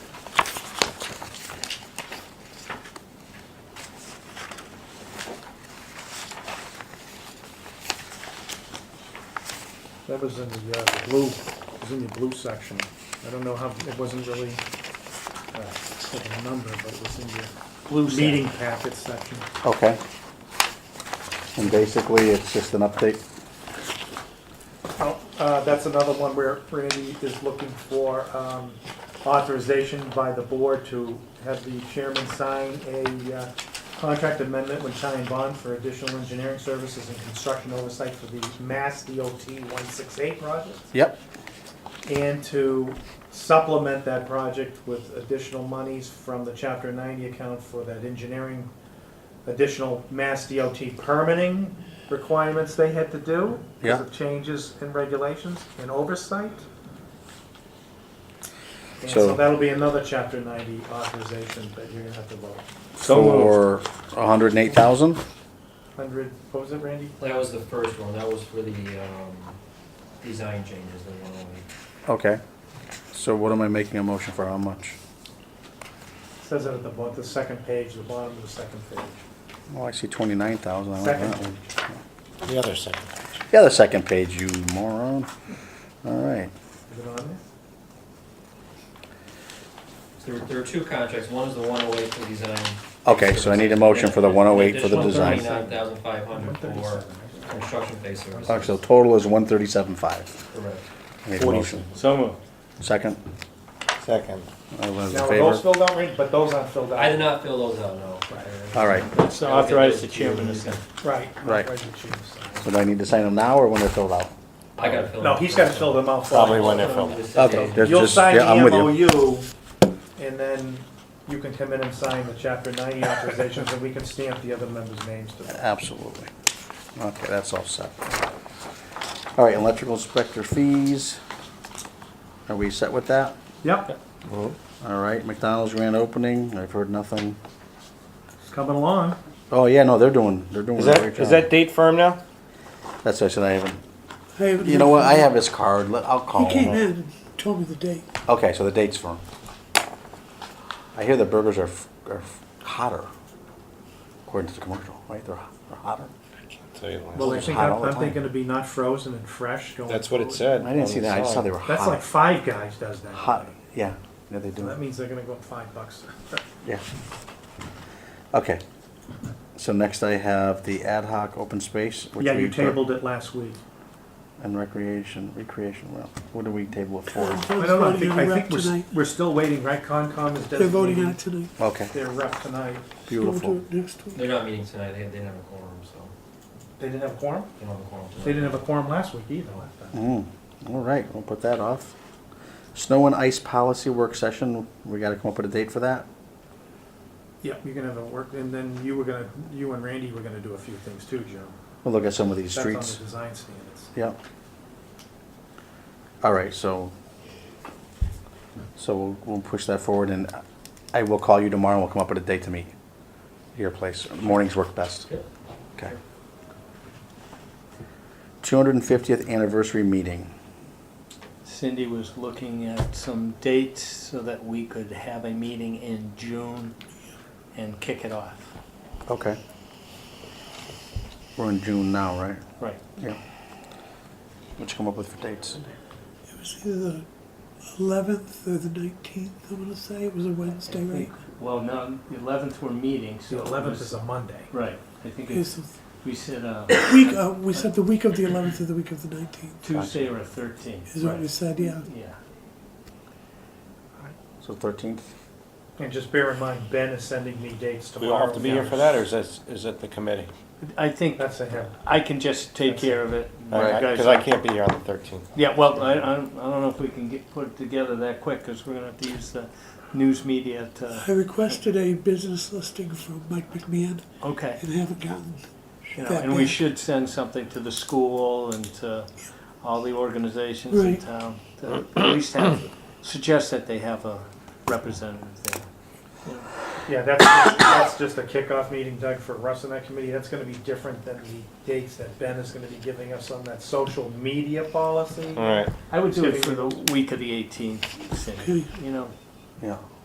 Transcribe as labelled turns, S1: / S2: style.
S1: That was in the, uh, the blue, it was in the blue section. I don't know how, it wasn't really, uh, like a number, but it was in the
S2: Blue
S1: meeting packet section.
S3: Okay. And basically, it's just an update.
S1: Oh, uh, that's another one where Randy is looking for, um, authorization by the board to have the chairman sign a, uh, contract amendment with Italian Bond for additional engineering services and construction oversight for the Mass DOT one six eight project.
S3: Yep.
S1: and to supplement that project with additional monies from the chapter ninety account for that engineering, additional Mass DOT permitting requirements they had to do.
S3: Yeah.
S1: Because of changes in regulations and oversight. And
S3: So-
S1: so that'll be another chapter ninety authorization that you're gonna have to vote.
S2: So moved.
S3: For a hundred and eight thousand?
S1: Hundred, what was it, Randy?
S4: That was the first one, that was for the, um, design changes, the one only.
S3: Okay. So what am I making a motion for, how much?
S1: Says it at the bottom, the second page, the bottom of the second page.
S3: Well, Oh, I see twenty-nine thousand, I like
S1: Second
S3: that one.
S2: The other second.
S3: Yeah, the second page, you moron. All right,
S1: Is it on there?
S4: There, there are two contracts, one is the one oh eight for design.
S3: okay, so I need a motion for the one oh eight for the design.
S4: Twenty-nine thousand five hundred for
S1: 137.
S4: construction phase services.
S3: Okay, so total is one thirty-seven five.
S4: Correct.
S3: Need a motion,
S2: So moved.
S3: second?
S2: Second.
S3: All those in
S1: Now, were those
S3: favor?
S1: filled out, Randy? But those aren't filled out.
S4: I did not fill those out, no.
S3: All right,
S2: Let's authorize the chairman to sign.
S1: Right.
S3: Right.
S1: Why did you choose that?
S3: so do I need to sign them now or when they're filled out?
S4: I gotta fill.
S1: No,
S4: them
S1: he's
S4: out.
S1: gotta fill them out. for
S2: Probably
S1: us.
S2: when they're filled.
S4: Just
S3: Okay,
S4: today.
S3: there's
S1: You'll
S3: just,
S1: sign
S3: yeah,
S1: the
S3: I'm with you.
S1: MOU, and then you can come in and sign the chapter ninety authorizations, and we can stamp the other members' names to them.
S3: Absolutely. Okay, that's all set. All right, electrical inspector fees. Are we set with that?
S1: Yep,
S3: All right, McDonald's grand opening, I've heard nothing.
S1: it's coming along.
S3: Oh, yeah, no, they're doing, they're doing
S2: Is
S3: a
S2: that,
S3: great
S2: is that
S3: job.
S2: date firm now?
S3: That's what I said, I haven't, you know what, I have his card, Let- I'll
S5: He
S3: call
S5: came in
S3: him.
S5: and told me the date.
S3: Okay, so the date's firm. I hear the burgers are, f- are f- hotter, according to the commercial, right, they're ho- they're hotter?
S1: Well, I
S3: it's
S1: think,
S3: hot
S1: I'm
S3: all the
S1: I'm
S3: time.
S1: thinking to be not frozen and fresh going.
S2: That's what it
S1: forward.
S2: said.
S3: I didn't see that, I just saw they were
S1: That's like
S3: hot,
S1: Five Guys does that.
S3: hot, yeah, yeah, they do.
S1: That means they're gonna go up five bucks.
S3: Yeah. Okay. So next I have the ad hoc open space. which
S1: Yeah,
S3: we
S1: you
S3: put-
S1: tabled it last week.
S3: And recreation, recreation, well, what do we table it for?
S1: I don't know, I
S5: Voting
S1: think,
S5: on
S1: I
S5: rep
S1: think we're, s-
S5: tonight.
S1: we're still waiting, right? Concom is
S5: They're voting on
S1: designating
S5: it tonight.
S3: Okay,
S1: their rep tonight.
S5: We'll do
S3: beautiful.
S5: it next week.
S4: They're not meeting tonight, they, they didn't have a quorum, so,
S1: They didn't have a quorum?
S4: they don't have a quorum tonight.
S1: They didn't have a quorum last week either, I thought.
S3: Mm, all right, we'll put that off. Snow and ice policy work session, we gotta come up with a date for that?
S1: Yeah, you're gonna have a work, and then you were gonna, you and Randy were gonna do a few things too, Joe.
S3: We'll look at some of these
S1: That's on
S3: streets.
S1: the design standards.
S3: Yep. All right, so, so we'll, we'll push that forward and I will call you tomorrow and we'll come up with a date to meet. Your place, mornings work best.
S4: Yep.
S3: Okay. Two hundred and fiftieth anniversary meeting.
S6: Cindy was looking at some dates so that we could have a meeting in June and kick it off.
S3: Okay. We're in June now, right?
S6: Right.
S3: Yeah. What you come up with for dates?
S5: It was either the eleventh or the nineteenth, I'm gonna say. It was a Wednesday, right?
S6: Well, no, the eleventh we're meeting, so.
S1: The
S6: it
S1: eleventh
S6: was-
S1: is a Monday.
S6: Right, I think
S5: It's
S6: it's,
S5: the
S6: we said uh,
S5: week, uh, we said the week of the eleventh or the week of the nineteenth,
S6: Tuesday or thirteenth.
S5: is what we said, yeah.
S6: Yeah.
S3: So thirteenth?
S1: And just bear in mind, Ben is sending me dates
S2: Do we
S1: tomorrow.
S2: all have to be here for that, or is that, is it the committee?
S6: I think
S1: That's a him.
S6: I can just take care of it. You guys-
S2: Because I can't be here on the thirteenth.
S6: Yeah, well, I, I don't I don't know if we can get, put it together that quick, because we're gonna have to use the news media
S5: I
S1: Uh,
S6: to,
S5: requested a business listing from Mike McMahon
S6: okay.
S5: and haven't gotten,
S6: You know,
S5: that
S6: and we
S5: big.
S6: should send something to the school and to all the organizations in
S5: Right.
S6: town to at least have, suggest that they have a representative there.
S1: Yeah, that's, just- that's just a kickoff meeting, Doug, for Russ and that committee. That's gonna be different than the dates that Ben is gonna be giving us on that social media policy.
S2: All right.
S6: I would do it for the week of the eighteenth, Cindy, you know,
S3: Yeah.